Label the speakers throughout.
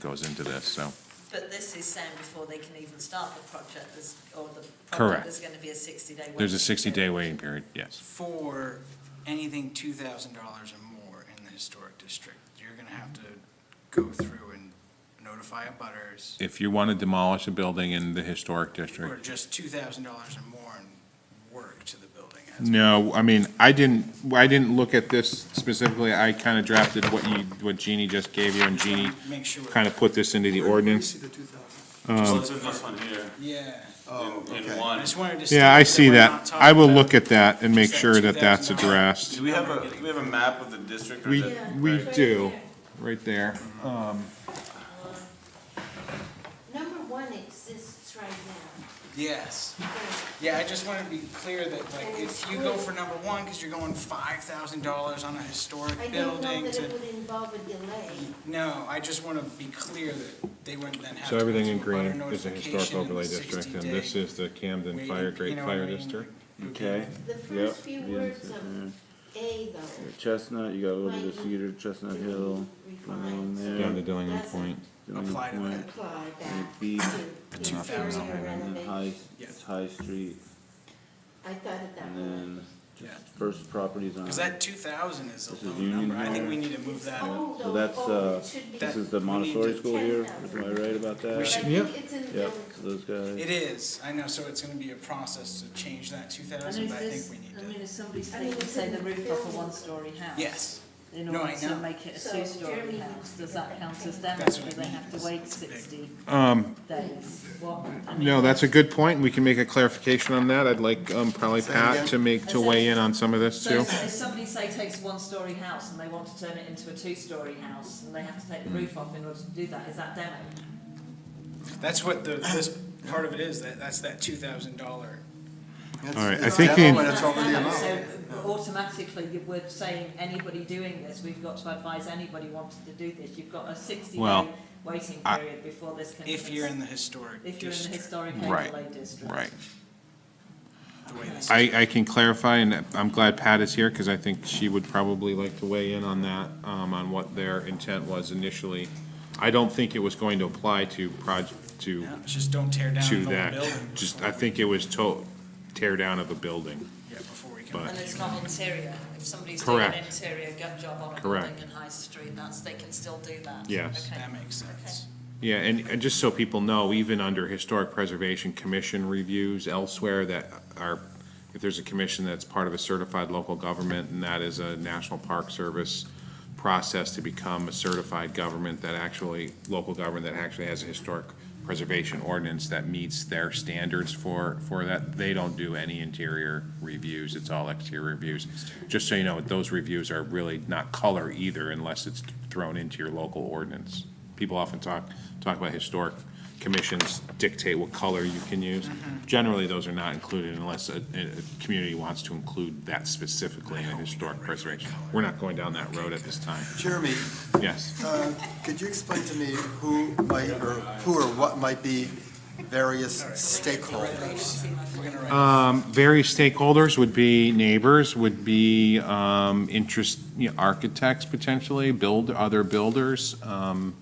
Speaker 1: goes into this, so.
Speaker 2: But this is saying before they can even start the project, there's, or the
Speaker 1: Correct.
Speaker 2: project, there's going to be a 60-day wait.
Speaker 1: There's a 60-day waiting period, yes.
Speaker 3: for anything two thousand dollars or more in the historic district, you're gonna have to go through and notify abutters.
Speaker 1: If you want to demolish a building in the historic
Speaker 3: or
Speaker 1: district.
Speaker 3: just two thousand dollars or more and work to the building.
Speaker 1: Mm-hmm.
Speaker 3: as-
Speaker 1: No, I mean, I didn't, I didn't look at this specifically. I kind of drafted what you, what Jeannie just gave you, and Jeannie
Speaker 3: Make sure.
Speaker 1: kind of put this into the ordinance.
Speaker 4: Just look at this one here,
Speaker 3: Yeah,
Speaker 4: in- in
Speaker 3: I
Speaker 4: one.
Speaker 3: just wanted to.
Speaker 1: Yeah, I
Speaker 3: state
Speaker 1: see
Speaker 3: we're
Speaker 1: that.
Speaker 3: not talking
Speaker 1: I will
Speaker 3: about-
Speaker 1: look at that and make
Speaker 3: Just that
Speaker 1: sure that that's
Speaker 3: $2,000.
Speaker 1: addressed.
Speaker 4: Do we have a, do we have a map of the district? or
Speaker 1: We,
Speaker 4: is that-
Speaker 1: we
Speaker 4: right?
Speaker 1: do, right there.
Speaker 5: Number one exists right now.
Speaker 3: Yes, yeah, I just wanted to be clear that like, if you go for number one, because you're going five thousand dollars on a
Speaker 5: I
Speaker 3: historic
Speaker 5: didn't know
Speaker 3: building
Speaker 5: that it
Speaker 3: to,
Speaker 5: would involve a delay.
Speaker 3: no, I just want to be clear that they wouldn't then have to.
Speaker 1: So
Speaker 3: go
Speaker 1: everything in
Speaker 3: through abutter
Speaker 1: green is a historic
Speaker 3: notification and the
Speaker 1: overlay district, and
Speaker 3: 60
Speaker 1: this
Speaker 3: day
Speaker 1: is the Camden
Speaker 3: waiting,
Speaker 1: Fire,
Speaker 3: you
Speaker 1: Great
Speaker 3: know what I
Speaker 1: Fire
Speaker 3: mean?
Speaker 1: District.
Speaker 6: Okay,
Speaker 5: The
Speaker 6: yep.
Speaker 5: first few
Speaker 6: yeah,
Speaker 5: words
Speaker 6: so,
Speaker 5: of A though.
Speaker 6: Chestnut, you gotta go to the
Speaker 5: Right.
Speaker 6: Cedar, Chestnut
Speaker 5: Mhm.
Speaker 6: Hill, down
Speaker 5: Refines.
Speaker 6: there.
Speaker 1: Down to Dillingham
Speaker 5: That's-
Speaker 1: Point.
Speaker 6: Dillingham
Speaker 3: Apply to
Speaker 6: Point,
Speaker 3: that.
Speaker 5: Apply that
Speaker 6: B.
Speaker 5: to
Speaker 3: $2,000
Speaker 5: interior
Speaker 6: And then High,
Speaker 5: renovation.
Speaker 3: Yes.
Speaker 6: High Street,
Speaker 5: I thought of that
Speaker 6: and
Speaker 5: one.
Speaker 6: then
Speaker 3: Yeah.
Speaker 6: first properties on,
Speaker 3: Because
Speaker 6: so
Speaker 3: that two thousand is
Speaker 6: This
Speaker 3: a
Speaker 6: is
Speaker 3: low
Speaker 6: Union
Speaker 3: number, I think we need to move
Speaker 5: It's
Speaker 3: that
Speaker 1: Oh.
Speaker 3: up.
Speaker 5: old, though.
Speaker 6: that's,
Speaker 5: Old.
Speaker 6: uh,
Speaker 5: It should be-
Speaker 6: this is
Speaker 3: we
Speaker 6: the
Speaker 3: need
Speaker 6: Montessori
Speaker 3: to-
Speaker 6: school here, am I
Speaker 5: 10,000.
Speaker 6: right about
Speaker 5: I
Speaker 6: that?
Speaker 3: should-
Speaker 5: think it's in
Speaker 6: Yep,
Speaker 5: Dillingham.
Speaker 6: so those guys,
Speaker 3: It is, I know, so it's gonna be a process to change that two
Speaker 2: And
Speaker 3: thousand,
Speaker 2: if
Speaker 3: but I
Speaker 2: this,
Speaker 3: think we need
Speaker 2: I mean,
Speaker 3: to,
Speaker 2: if somebody's
Speaker 5: I mean,
Speaker 2: taking,
Speaker 5: it's
Speaker 2: say,
Speaker 5: in
Speaker 2: the
Speaker 5: the
Speaker 2: roof off a
Speaker 5: building.
Speaker 2: one-story house.
Speaker 3: yes.
Speaker 2: In
Speaker 3: No,
Speaker 2: order
Speaker 3: I
Speaker 2: to
Speaker 3: know.
Speaker 2: make it a
Speaker 5: So
Speaker 2: two-story
Speaker 5: Jeremy
Speaker 2: house,
Speaker 5: wants to
Speaker 2: does
Speaker 5: go
Speaker 2: that
Speaker 5: back
Speaker 2: count as
Speaker 5: in.
Speaker 2: damage,
Speaker 3: That's what
Speaker 2: do
Speaker 3: I
Speaker 2: they
Speaker 3: mean,
Speaker 2: have
Speaker 3: it's-
Speaker 2: to wait
Speaker 3: it's big.
Speaker 2: sixty
Speaker 1: Um,
Speaker 2: days? What, I mean,
Speaker 1: no, that's a good point. We can make a clarification on that. I'd like, um, probably Pat to make, to weigh in on some of this
Speaker 2: So
Speaker 1: too.
Speaker 2: if if somebody, say, takes a one-story house and they want to turn it into a two-story house, and they have to take
Speaker 1: Hmm.
Speaker 2: the roof off in order to do that, is that damage?
Speaker 3: That's what the, this part of it is, that, that's that two thousand dollar.
Speaker 1: All right, I think the-
Speaker 2: So automatically, you- we're saying anybody doing this, we've got to advise anybody wanting to do this, you've got a
Speaker 1: Well,
Speaker 2: sixty-day waiting
Speaker 1: I-
Speaker 2: period before this can.
Speaker 3: If
Speaker 2: even
Speaker 3: you're
Speaker 2: s-
Speaker 3: in the historic
Speaker 2: If you're in the
Speaker 3: district,
Speaker 2: historic
Speaker 1: Right,
Speaker 2: overlay district.
Speaker 1: Right.
Speaker 3: the way this.
Speaker 1: I, I can clarify, and I'm glad Pat is here, because I think she would probably like to weigh in on that, um, on what their intent was initially. I don't think it was going to apply to proj, to,
Speaker 3: Yeah, it's just don't tear down
Speaker 1: to
Speaker 3: the whole
Speaker 1: that.
Speaker 3: building.
Speaker 1: Just,
Speaker 3: before
Speaker 1: I
Speaker 3: we-
Speaker 1: think it was to, tear down of a building.
Speaker 3: Yeah, before we
Speaker 1: but-
Speaker 3: can.
Speaker 2: And it's not interior, if somebody's doing an
Speaker 1: Correct.
Speaker 2: interior gut job on a
Speaker 1: Correct.
Speaker 2: building in High Street, that's, they can still do that.
Speaker 1: Yes.
Speaker 2: Okay.
Speaker 3: That makes sense.
Speaker 1: Yeah, and, and just so people know, even under Historic Preservation Commission reviews elsewhere that are, if there's a commission that's part of a certified local government, and that is a National Park Service process to become a certified government that actually, local government that actually has a historic preservation ordinance that meets their standards for, for that, they don't do any interior reviews, it's all exterior reviews. Just so you know, those reviews are really not color either unless it's thrown into your local ordinance. People often talk, talk about historic commissions dictate what color you can use. Generally, those are not included unless a, a a community wants to include that specifically in a historic preservation. We're not going down that road at this time.
Speaker 7: Jeremy,
Speaker 1: Yes.
Speaker 7: uh, could you explain to me who might, or who or what might be various stakeholders?
Speaker 1: Um, various stakeholders would be neighbors, would be, um, interest, you know, architects potentially, build, other builders, um,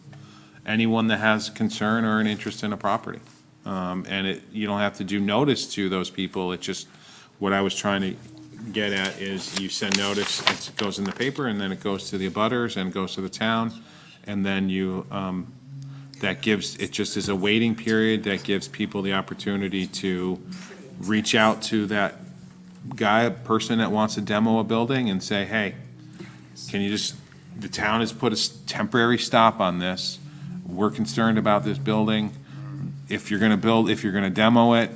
Speaker 1: anyone that has concern or an interest in a property. Um, and it, you don't have to do notice to those people, it just, what I was trying to get at is you send notice, it goes in the paper, and then it goes to the abutters and goes to the town, and then you, um, that gives, it just is a waiting period that gives people the opportunity to reach out to that guy, person that wants to demo a building and say, hey, can you just, the town has put a s- temporary stop on this. We're concerned about this building. If you're gonna build, if you're gonna demo it,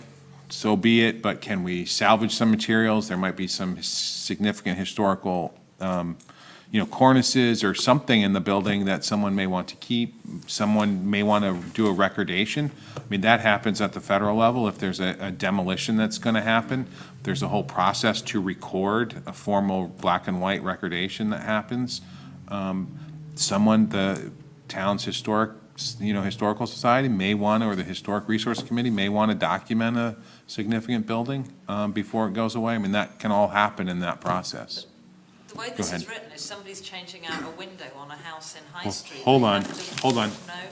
Speaker 1: so be it, but can we salvage some materials? There might be some s- significant historical, um, you know, cornices or something in the building that someone may want to keep. Someone may want to do a recordation. I mean, that happens at the federal level. If there's a a demolition that's going to happen, there's a whole process to record a formal black and white recordation that happens. Um, Someone, the town's historic, you know, historical society may want, or the Historic Resource Committee may want to document a significant building um, before it goes away. I mean, that can all happen in that process.
Speaker 2: The way this
Speaker 1: ahead.
Speaker 2: is written, if somebody's changing out a window on a house in High
Speaker 1: Well,
Speaker 2: Street.
Speaker 1: hold
Speaker 2: they
Speaker 1: on,
Speaker 2: have to-
Speaker 1: hold on.
Speaker 2: No.